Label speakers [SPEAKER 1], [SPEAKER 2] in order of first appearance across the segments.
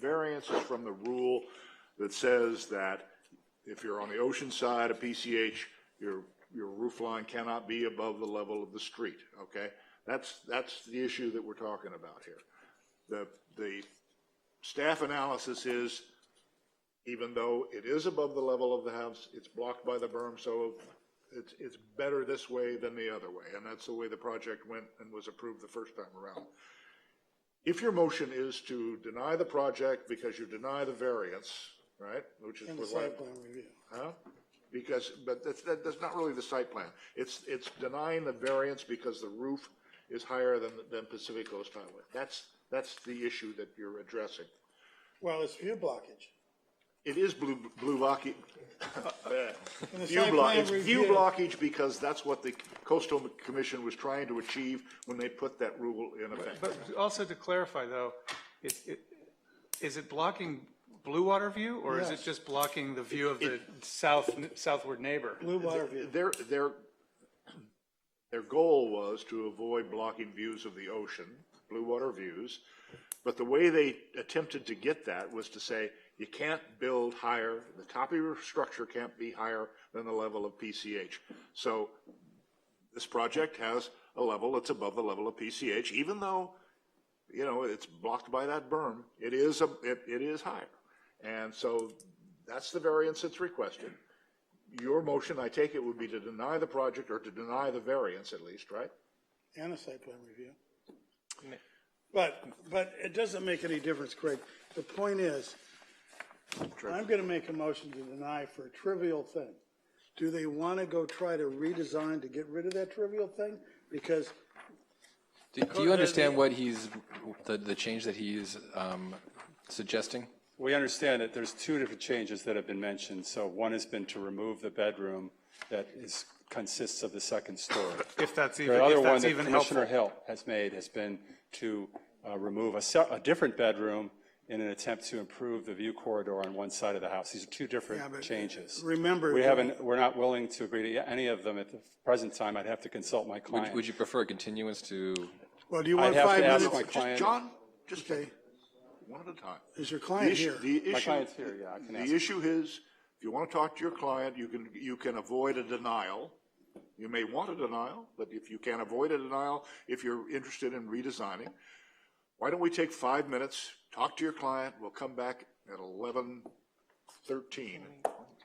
[SPEAKER 1] variance is from the rule that says that if you're on the ocean side of PCH, your, your roof line cannot be above the level of the street, okay? That's, that's the issue that we're talking about here. The, the staff analysis is, even though it is above the level of the house, it's blocked by the berm, so it's, it's better this way than the other way, and that's the way the project went and was approved the first time around. If your motion is to deny the project because you deny the variance, right, which is.
[SPEAKER 2] And the
[SPEAKER 1] what
[SPEAKER 2] site plan review.
[SPEAKER 1] Huh? Because, but that's, that, that's not really the site plan. It's, it's denying the variance because the roof is higher than, than Pacific Coast Highway. That's, that's the issue that you're addressing.
[SPEAKER 2] Well, it's view blockage.
[SPEAKER 1] It is blue, blue blocky.
[SPEAKER 2] And the
[SPEAKER 1] View
[SPEAKER 2] site
[SPEAKER 1] block,
[SPEAKER 2] plan
[SPEAKER 1] it's view
[SPEAKER 2] review-
[SPEAKER 1] blockage because that's what the coastal commission was trying to achieve when they put that rule in effect.
[SPEAKER 3] But also to clarify, though, is, it- is it blocking Blue Water View, or is it
[SPEAKER 2] Yes.
[SPEAKER 3] just blocking the view of the south, southward neighbor?
[SPEAKER 2] Blue water view.
[SPEAKER 1] Their, their, their goal was to avoid blocking views of the ocean, blue water views. But the way they attempted to get that was to say, you can't build higher, the top of your structure can't be higher than the level of PCH. So this project has a level that's above the level of PCH, even though, you know, it's blocked by that berm, it is, a- it, it is higher. And so that's the variance that's requested. Your motion, I take it, would be to deny the project or to deny the variance at least, right?
[SPEAKER 2] And the site plan review. But, but it doesn't make any difference, Craig. The point is, I'm gonna make a motion to deny for a trivial thing. Do they wanna go try to redesign to get rid of that trivial thing? Because
[SPEAKER 4] Do do you understand what he's, the, the change that he's um, suggesting?
[SPEAKER 5] We understand that there's two different changes that have been mentioned. So one has been to remove the bedroom that is, consists of the second story.
[SPEAKER 3] If that's even,
[SPEAKER 5] The other
[SPEAKER 3] if
[SPEAKER 5] one
[SPEAKER 3] that's
[SPEAKER 5] that
[SPEAKER 3] even
[SPEAKER 5] Commissioner
[SPEAKER 3] helpful.
[SPEAKER 5] Hill has made has been to uh, remove a se- a different bedroom in an attempt to improve the view corridor on one side of the house. These are two
[SPEAKER 3] uh,
[SPEAKER 5] different changes.
[SPEAKER 2] remember-
[SPEAKER 5] We haven't, we're not willing to agree to any of them at the present time. I'd have to consult my client.
[SPEAKER 4] Would you prefer continuance to,
[SPEAKER 2] Well, do you
[SPEAKER 5] I'd
[SPEAKER 2] want
[SPEAKER 5] have
[SPEAKER 2] five
[SPEAKER 5] to ask
[SPEAKER 2] minutes?
[SPEAKER 5] my
[SPEAKER 1] Just,
[SPEAKER 5] client.
[SPEAKER 1] John, just
[SPEAKER 2] Okay.
[SPEAKER 1] one at a time.
[SPEAKER 2] Is your
[SPEAKER 1] The
[SPEAKER 2] client
[SPEAKER 1] issue,
[SPEAKER 2] here?
[SPEAKER 1] the
[SPEAKER 5] My
[SPEAKER 1] issue-
[SPEAKER 5] client's here, yeah, I can ask.
[SPEAKER 1] The issue is, if you want to talk to your client, you can, you can avoid a denial. You may want a denial, but if you can avoid a denial, if you're interested in redesigning, why don't we take five minutes, talk to your client, we'll come back at eleven thirteen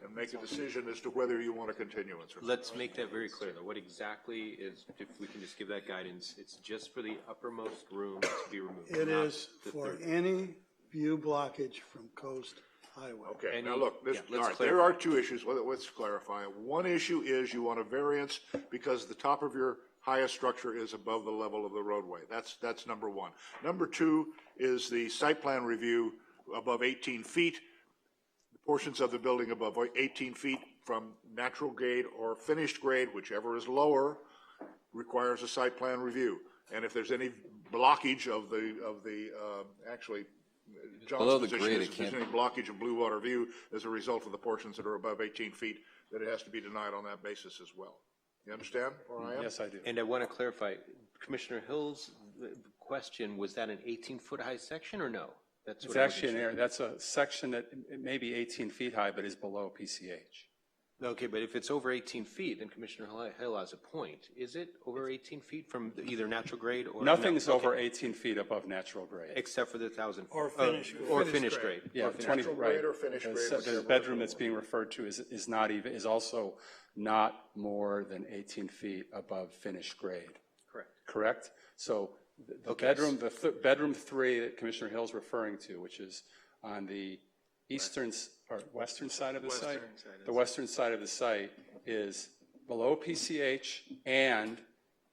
[SPEAKER 1] and make a decision as to whether you want a continuance or not.
[SPEAKER 6] Let's make that very clear, though. What exactly is, if we can just give that guidance, it's just for the uppermost room to be removed.
[SPEAKER 2] It
[SPEAKER 6] not
[SPEAKER 2] is
[SPEAKER 6] the
[SPEAKER 2] for
[SPEAKER 6] third.
[SPEAKER 2] any view blockage from Coast Highway.
[SPEAKER 1] Okay, now
[SPEAKER 6] Any-
[SPEAKER 1] look, this,
[SPEAKER 6] yeah,
[SPEAKER 1] all
[SPEAKER 6] let's
[SPEAKER 1] right, there are two issues, Let- let's clarify. One issue is you want a variance because the top of your highest structure is above the level of the roadway. That's, that's number one. Number two is the site plan review above 18 feet, portions of the building above 18 feet from natural grade or finished grade, whichever is lower, requires a site plan review. And if there's any blockage of the, of the, uh, actually,
[SPEAKER 4] Below
[SPEAKER 1] John's
[SPEAKER 4] the
[SPEAKER 1] position
[SPEAKER 4] grade,
[SPEAKER 1] is
[SPEAKER 4] it
[SPEAKER 1] if there's
[SPEAKER 4] can't-
[SPEAKER 1] any blockage of Blue Water View as a result of the portions that are above 18 feet, that it has to be denied on that basis as well. You understand where I am?
[SPEAKER 5] Yes, I do.
[SPEAKER 6] And I want to clarify, Commissioner Hill's uh, question, was that an 18-foot high section or no? That's
[SPEAKER 5] It's
[SPEAKER 6] what I wasn't
[SPEAKER 5] actually an
[SPEAKER 6] sure.
[SPEAKER 5] area, that's a section that it may be 18 feet high, but is below PCH.
[SPEAKER 6] Okay, but if it's over 18 feet, then Commissioner Hill- Hill has a point. Is it over 18 feet from either natural grade or?
[SPEAKER 5] Nothing's
[SPEAKER 6] No,
[SPEAKER 5] over
[SPEAKER 6] okay.
[SPEAKER 5] 18 feet above natural grade.
[SPEAKER 6] Except for the 1,000.
[SPEAKER 2] Or
[SPEAKER 6] uh,
[SPEAKER 2] finished grade.
[SPEAKER 6] Or
[SPEAKER 3] Finished
[SPEAKER 6] finished
[SPEAKER 3] grade.
[SPEAKER 6] grade.
[SPEAKER 5] Yeah, 20,
[SPEAKER 1] natural
[SPEAKER 5] right.
[SPEAKER 1] grade or finished grade,
[SPEAKER 5] So The
[SPEAKER 1] whichever.
[SPEAKER 5] bedroom that's being referred to is, is not even, is also not more than 18 feet above finished grade,
[SPEAKER 6] Correct.
[SPEAKER 5] correct? So the- the
[SPEAKER 6] Okay.
[SPEAKER 5] bedroom, the th- bedroom three that Commissioner Hill's referring to, which is on the eastern, s- or western side of the site? The western side of the site is below PCH, and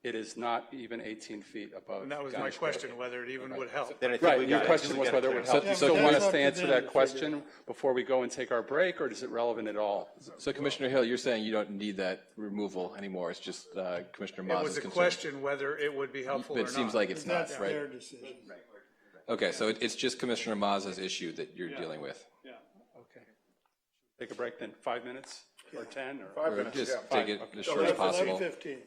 [SPEAKER 5] it is not even 18 feet above.
[SPEAKER 3] And that was my
[SPEAKER 5] guidance.
[SPEAKER 3] question, whether it even would help.
[SPEAKER 6] Then I think we
[SPEAKER 5] Right,
[SPEAKER 6] got it. I
[SPEAKER 5] your
[SPEAKER 6] think
[SPEAKER 5] question
[SPEAKER 6] we
[SPEAKER 5] was
[SPEAKER 6] got
[SPEAKER 5] whether it would help. Do you
[SPEAKER 2] So-
[SPEAKER 5] still want
[SPEAKER 2] That's
[SPEAKER 5] us
[SPEAKER 2] up
[SPEAKER 5] to
[SPEAKER 2] to
[SPEAKER 5] answer
[SPEAKER 2] them to
[SPEAKER 5] that
[SPEAKER 2] figure
[SPEAKER 5] question before we go and take our break, or is it relevant at all?
[SPEAKER 4] so Commissioner Hill, you're saying you don't need that removal anymore, it's just uh, Commissioner
[SPEAKER 3] It
[SPEAKER 4] Mazza's
[SPEAKER 3] was a
[SPEAKER 4] concern?
[SPEAKER 3] question whether it would be helpful
[SPEAKER 4] But
[SPEAKER 3] or
[SPEAKER 4] it
[SPEAKER 3] not.
[SPEAKER 4] seems like it's not,
[SPEAKER 2] That's their
[SPEAKER 4] right?
[SPEAKER 2] decision.
[SPEAKER 4] Okay, so it- it's just Commissioner Mazza's issue that you're dealing with?
[SPEAKER 5] Okay. Take a break then, five minutes, or 10, or?
[SPEAKER 1] Five
[SPEAKER 4] Or
[SPEAKER 1] minutes,
[SPEAKER 4] just
[SPEAKER 1] yeah.
[SPEAKER 4] take it as short as
[SPEAKER 2] Eleven
[SPEAKER 4] possible?
[SPEAKER 2] fifteen.